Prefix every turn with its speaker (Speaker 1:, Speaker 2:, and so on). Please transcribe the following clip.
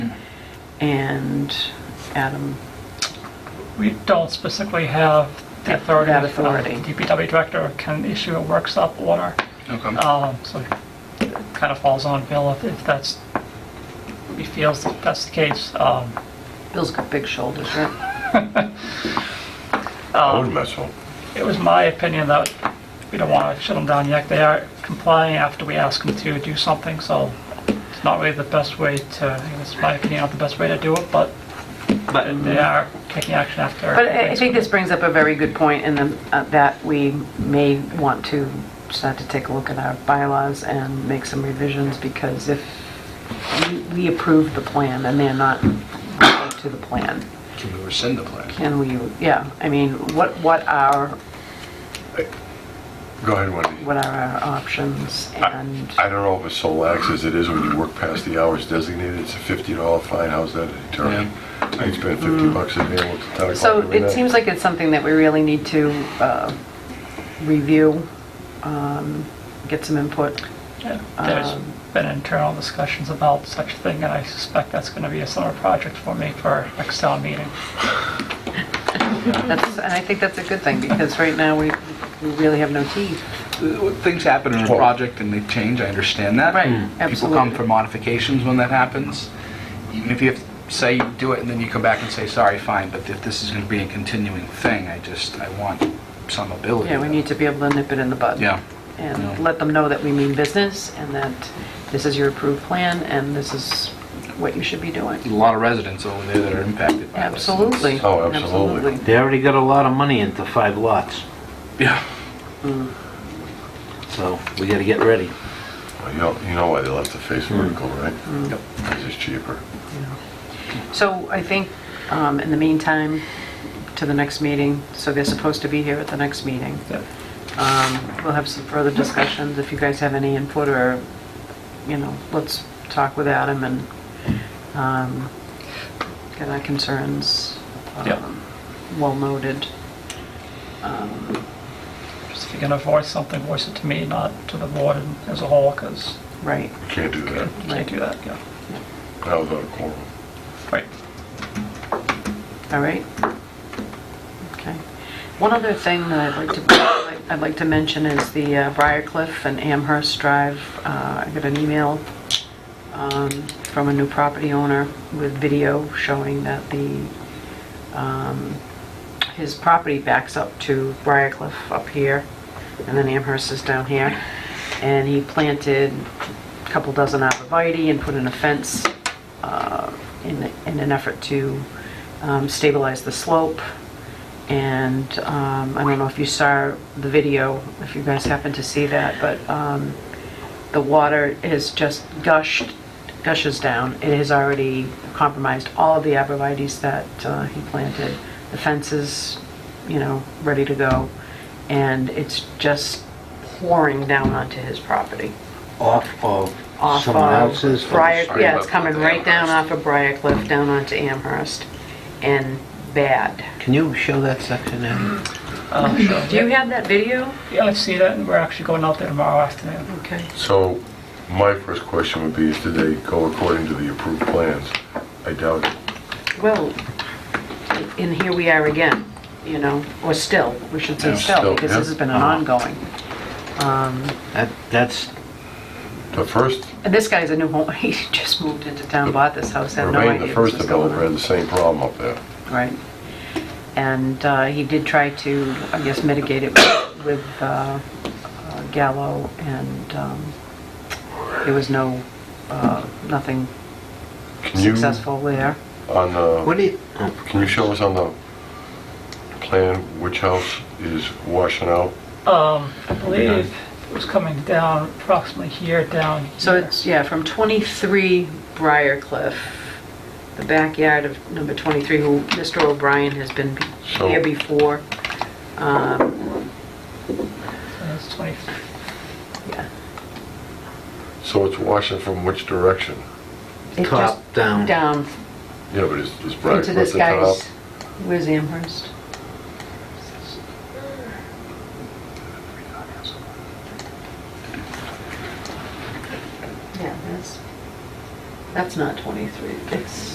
Speaker 1: and Adam.
Speaker 2: We don't specifically have the
Speaker 1: That-
Speaker 2: authority.
Speaker 1: that
Speaker 2: uh,
Speaker 1: authority.
Speaker 2: The DPW director can issue a work stop order,
Speaker 3: Okay.
Speaker 2: Um, so it kind of falls on Bill if- if that's, if he feels that that's the case. Um,
Speaker 1: Bill's got big shoulders, right?
Speaker 4: I would imagine.
Speaker 2: It was my opinion that we don't want to shut them down yet. They are complying after we ask them to do something, so it's not really the best way to, I think it's my opinion, not the best way to do it, but they are taking action after.
Speaker 1: But I I think this brings up a very good point in the- uh, that we may want to start to take a look at our bylaws and make some revisions because if we- we approve the plan and they're not up to the plan,
Speaker 3: Can we rescind the plan?
Speaker 1: can we, yeah, I mean, what, what are,
Speaker 4: Go ahead, Wendy.
Speaker 1: what are our options and,
Speaker 4: I don't know if it's so lax as it is when you work past the hours designated. It's a fifty dollar fine. How's that deterrent? I can spend fifty bucks a day with the town.
Speaker 1: Mm. so it seems like it's something that we really need to uh, review, um, get some input.
Speaker 2: Yeah, There's
Speaker 1: Um,
Speaker 2: been internal discussions about such thing, and I suspect that's going to be a summer project for me for next town meeting.
Speaker 1: That's, and I think that's a good thing, because right now, we we really have no teeth.
Speaker 3: Things happen in a
Speaker 4: Well-
Speaker 3: project and they change, I understand that.
Speaker 1: Right,
Speaker 3: People come
Speaker 1: absolutely.
Speaker 3: for modifications when that happens. Even if you have- say you do it and then you come back and say, sorry, fine, but if this is going to be a continuing thing, I just, I want some ability.
Speaker 1: Yeah, we need to be able to nip it in the bud.
Speaker 3: Yeah.
Speaker 1: And
Speaker 3: Yeah.
Speaker 1: let them know that we mean business, and that this is your approved plan, and this is what you should be doing.
Speaker 3: A lot of residents over there that are impacted by this.
Speaker 1: Absolutely.
Speaker 4: Oh, absolutely.
Speaker 5: They already got a lot of money into five lots,
Speaker 3: Yeah.
Speaker 1: Mm.
Speaker 5: so we gotta get ready.
Speaker 4: Well, You know, you know why they left the face vertical, right? Because it's cheaper.
Speaker 1: So I think, um, in the meantime, to the next meeting, so they're supposed to be here at the next meeting. Um, We'll have some further discussions, if you guys have any input, or, you know, let's talk with Adam and um, get our concerns
Speaker 2: Yeah.
Speaker 1: um, well noted. Um,
Speaker 2: Just if you're going to voice something, voice it to me, not to the board and- as a whole, because
Speaker 1: Right,
Speaker 4: Can't do that.
Speaker 2: you can't do that, yeah.
Speaker 4: That was out of quorum.
Speaker 2: Right.
Speaker 1: all right? Okay. One other thing that I'd like to, I'd like to mention is the uh, Briarcliff and Amherst Drive. Uh, I got an email um, from a new property owner with video showing that the um, his property backs up to Briarcliff up here, and then Amherst is down here. And he planted a couple dozen arborvitae and put in a fence uh, in in an effort to um, stabilize the slope. And um, I don't know if you saw the video, if you guys happened to see that, but um, the water has just gushed, gushes down. It has already compromised all of the abrevieties that uh, he planted. The fence is, you know, ready to go, and it's just pouring down onto his property.
Speaker 5: Off of
Speaker 1: Off
Speaker 5: someone
Speaker 1: of
Speaker 5: else's.
Speaker 1: Briar,
Speaker 3: sorry
Speaker 1: yeah, it's
Speaker 3: about
Speaker 1: coming
Speaker 3: the
Speaker 1: right down off
Speaker 3: Amherst.
Speaker 1: of Briar Cliff, down onto Amherst, and bad.
Speaker 5: Can you show that section now?
Speaker 2: Um, sure.
Speaker 1: Do you have that video?
Speaker 2: Yeah, I see that, and we're actually going out there tomorrow afternoon.
Speaker 1: Okay.
Speaker 4: So my first question would be, is did they go according to the approved plans? I doubt it.
Speaker 1: Well, and here we are again, you know, or still, we should say
Speaker 3: Yeah,
Speaker 1: still,
Speaker 4: still,
Speaker 1: because
Speaker 4: yeah. Uh-huh.
Speaker 1: this has been an ongoing. Um,
Speaker 5: That, that's,
Speaker 4: The first,
Speaker 1: And this guy's a new home, he just moved into town, bought this house, had no
Speaker 4: Remain
Speaker 1: idea
Speaker 4: the
Speaker 1: this
Speaker 4: first
Speaker 1: was going
Speaker 4: developer had the same problem up there.
Speaker 1: on. Right. And uh, he did try to, I guess, mitigate it with- with uh, uh, Gallo, and um, there was no, uh, nothing
Speaker 4: Can you,
Speaker 1: successful there.
Speaker 4: on the...
Speaker 5: what do you,
Speaker 4: Can you show us on the plan which house is washing out?
Speaker 2: Um, I believe it was coming down approximately here, down here.
Speaker 1: So it's, yeah, from 23 Briarcliff, the backyard of number 23, who Mr. O'Brien has been be-
Speaker 4: So-
Speaker 1: here before. Um,
Speaker 2: And It's 20,
Speaker 1: yeah.
Speaker 4: So it's washing from which direction?
Speaker 1: It
Speaker 5: Top
Speaker 1: just-
Speaker 5: down.
Speaker 1: Down,
Speaker 4: Yeah, but it's, it's bright
Speaker 1: into
Speaker 4: at
Speaker 1: this
Speaker 4: the top.
Speaker 1: guy's, where's Amherst? Yeah, that's, that's not 23, it's...